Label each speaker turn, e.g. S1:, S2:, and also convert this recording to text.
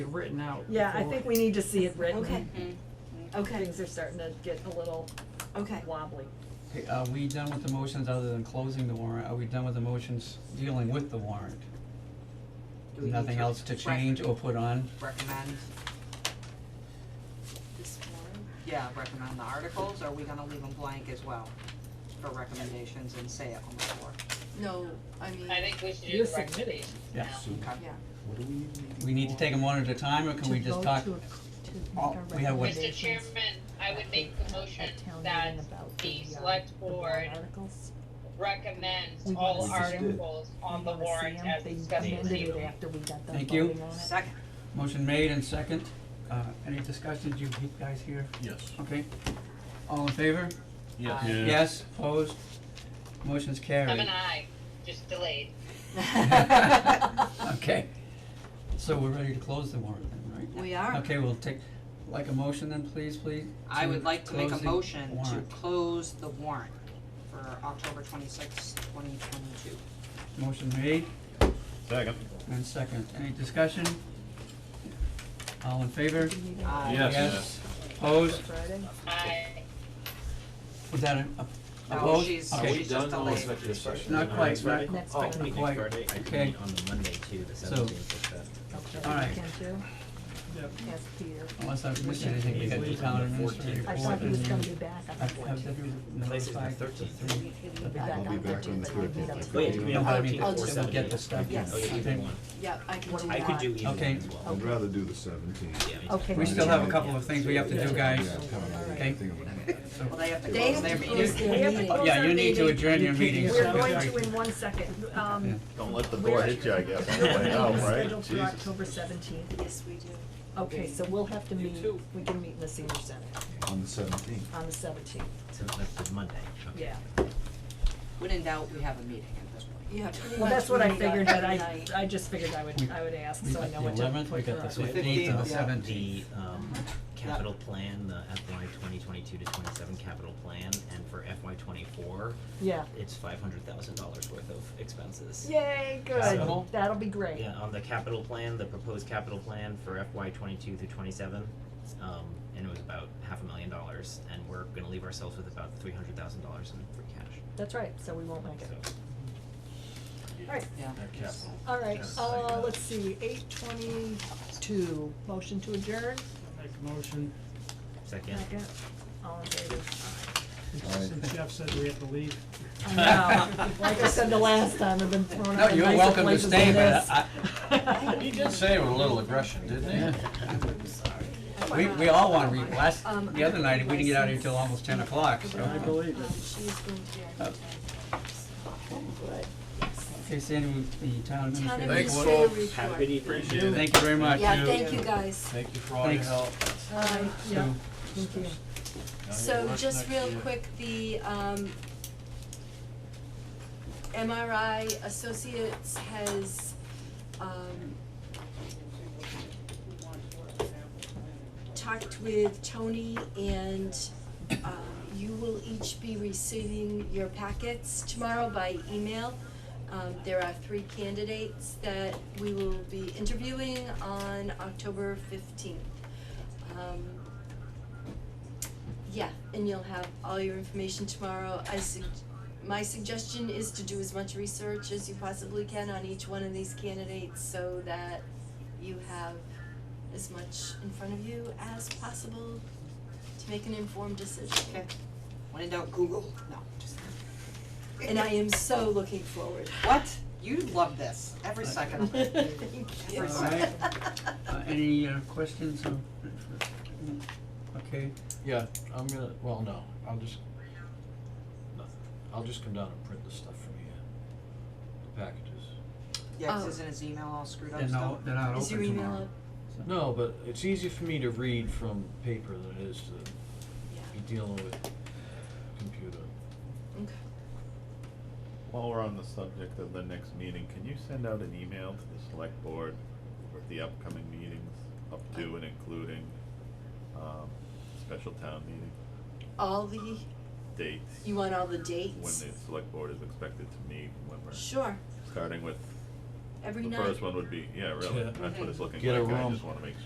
S1: written out.
S2: Yeah, I
S1: before.
S2: think we need to see it written.
S3: Okay, okay,
S2: Things are starting to get a little
S3: okay.
S2: wobbly.
S4: Hey, Are we done with the motions other than closing the warrant? Are we done with the motions dealing with the warrant?
S5: Do we need
S4: Nothing else to
S5: rec-
S4: change or put on?
S5: Recommend,
S3: This one.
S5: yeah, recommend the articles, or are we gonna leave them blank as well for recommendations and say it on the floor?
S3: No, I mean,
S6: I think we should do
S1: You're
S6: the
S1: submitting.
S6: recommendations now.
S4: Yeah.
S7: So,
S3: yeah,
S7: what do we need to
S4: We need to take them one at a time, or can we just talk? Oh, we have what-
S6: Mr. Chairman, I would make the motion that the
S8: uh,
S6: select board recommends
S8: We
S6: all
S7: wanna see-
S6: articles on the warrant as discussed this evening.
S4: Thank you.
S5: Second,
S4: Motion made and second. Uh, any discussion? Do you keep guys here?
S7: Yes.
S4: Okay. All in favor?
S7: Yes.
S5: Yeah.
S4: Uh, Yes, opposed? Motion's
S6: I'm an
S4: carried.
S6: aye, just delayed.
S4: Okay. So we're ready to close the warrant then, right?
S3: we are.
S4: Okay, we'll take, like a motion then, please, please?
S5: I would like to make a
S4: close the
S5: motion to
S4: warrant.
S5: close the warrant for October twenty-sixth, twenty twenty-two.
S4: Motion made
S7: Second.
S4: and second. Any discussion? All in favor?
S5: Uh,
S7: Yes.
S4: Opposed?
S2: Friday?
S6: Aye.
S4: Was that an, a-
S5: No,
S4: opposed?
S5: she's-
S4: Okay.
S5: Are we done? No, it's
S9: executive session.
S4: Not quite, not,
S8: Next
S9: Oh,
S4: not quite.
S9: Friday, I can
S4: Okay,
S9: meet on the Monday too, the
S4: So-
S9: seventeenth, if
S4: all right.
S8: Yep. Ask Peter.
S4: Unless I've missed anything, we got the town administrator
S8: I
S9: Fourteenth.
S4: report
S8: thought he was
S4: and
S8: gonna
S4: you-
S8: be back on the
S4: Have, have
S8: fourteenth.
S9: Places in
S4: you
S9: the
S4: notified the
S9: 13th.
S4: three?
S8: He'll be
S9: I'll
S8: back on
S9: be
S8: the
S9: back
S8: thirteenth, but I think that's.
S9: that. Wait, we
S4: No,
S9: have
S4: I mean,
S9: fourteenth or
S3: I'll just-
S4: we'll get the stuff.
S3: Yes.
S9: Oh, you
S4: I
S9: can do
S4: think
S9: one.
S3: Yeah, I can do
S8: What
S3: that.
S8: do
S9: I
S8: you
S9: could do
S8: want?
S9: either one
S4: Okay.
S9: as well.
S7: I'd rather do the seventeenth.
S9: Yeah, I
S8: Okay.
S9: just-
S4: We still have a couple of things we have to do, guys.
S7: Yeah, come on, I
S4: Okay.
S7: think about it.
S5: Well, they have to
S3: They
S5: close
S3: have
S5: their
S3: to
S5: meeting.
S3: close their
S2: We have to
S3: meeting.
S2: close
S4: Yeah,
S2: our
S4: you need to
S2: meeting.
S4: adjourn your meeting. so-
S2: We're going to in one second. Um,
S7: Don't let the door hit you, I guess, on the way out,
S2: We're
S7: right?
S2: scheduled for
S7: Jesus.
S2: October seventeenth.
S3: Yes, we do.
S2: Okay, so we'll have to meet, we can meet in the senior center
S7: On the seventeenth.
S2: on the seventeenth,
S9: So that's the Monday, okay.
S2: yeah.
S5: When in doubt, we have a meeting at this point.
S3: Yeah, pretty
S2: Well,
S3: much
S2: that's what I
S3: meet on
S2: figured, but
S3: every
S2: I,
S3: night.
S2: I just figured I would, I would ask,
S4: We
S2: so I
S4: got
S2: know
S4: the
S2: what to
S4: eleventh, we
S2: put for
S4: got the
S2: our.
S4: fifteenth and the
S5: 15th, yeah.
S4: seventeenth.
S9: The, um, capital plan, the FY twenty twenty-two to twenty-seven capital plan, and for FY twenty-four,
S2: Yeah.
S9: it's five hundred thousand dollars worth of expenses.
S2: Yay,
S9: So-
S2: good, that'll be great.
S9: Yeah, on the capital plan, the proposed capital plan for FY twenty-two through twenty-seven, um, and it was about half a million dollars, and we're gonna leave ourselves with about three hundred thousand dollars in free cash,
S2: That's right, so we won't make it.
S9: so.
S2: Right.
S5: Yeah.
S9: Our capital.
S2: All right,
S9: Yes.
S2: uh, let's see, eight twenty-two, motion to adjourn?
S8: Make a motion,
S9: Second.
S2: Second. All in favor?
S8: since Jeff said we have to leave.
S2: I know, like I said the last time, I've been thrown
S4: No,
S2: out of
S4: you're
S2: nicer
S4: welcome to
S2: places than
S4: stay, but
S2: this.
S4: I,
S7: He did say it with a little aggression, didn't
S4: yeah.
S3: I'm sorry.
S4: We, we all wanna read, last,
S3: Um,
S4: the other night, we didn't get out here till almost ten o'clock, so.
S8: I believe
S3: Um,
S8: it.
S3: she's going to be our new town.
S4: Okay, Sandy, we- the town
S3: Town
S4: administrator.
S3: administrator report.
S7: Appreciate
S4: Thank you very much.
S3: Yeah, thank you guys.
S7: Thank you for
S4: all your Thanks. help.
S2: Uh, yeah,
S4: So-
S2: thank you.
S3: So just real quick, the um MRI Associates has um talked with Tony and um you will each be receiving your packets tomorrow by email. Um there are three candidates that we will be interviewing on October fifteenth. Um yeah, and you'll have all your information tomorrow. I sug- my suggestion is to do as much research as you possibly can on each one of these candidates so that you have as much in front of you as possible to make an informed decision.
S5: Okay. When in doubt, Google, no, just,
S3: And I am so looking forward.
S5: what? You love this, every second of it.
S3: Thank you.
S5: All
S4: right. Uh, any uh, questions or? Okay,
S7: Yeah, I'm gonna, well, no, I'll just, nothing. I'll just come down and print the stuff from here, the packages.
S5: Yeah, 'cause
S3: Oh.
S5: isn't his email all screwed up
S4: they're
S5: still?
S4: not, they're not
S3: Is your
S4: open
S3: email
S4: tomorrow.
S3: up?
S7: No, but it's easier for me to read from paper than it is to
S3: Yeah,
S7: be dealing with computer.
S3: okay.
S10: While we're on the subject of the next meeting, can you send out an email to the select board with the upcoming meetings, up to and including, um, special town meeting
S3: All the,
S10: dates?
S3: you want all the
S10: When
S3: dates?
S10: the select board is expected to meet, when we're
S3: Sure,
S10: starting with
S11: every
S7: The
S11: night.
S7: first one would be, yeah, really,
S5: Yeah.
S7: that's what it's looking
S5: Get a
S7: like, I
S5: room.
S7: just wanna make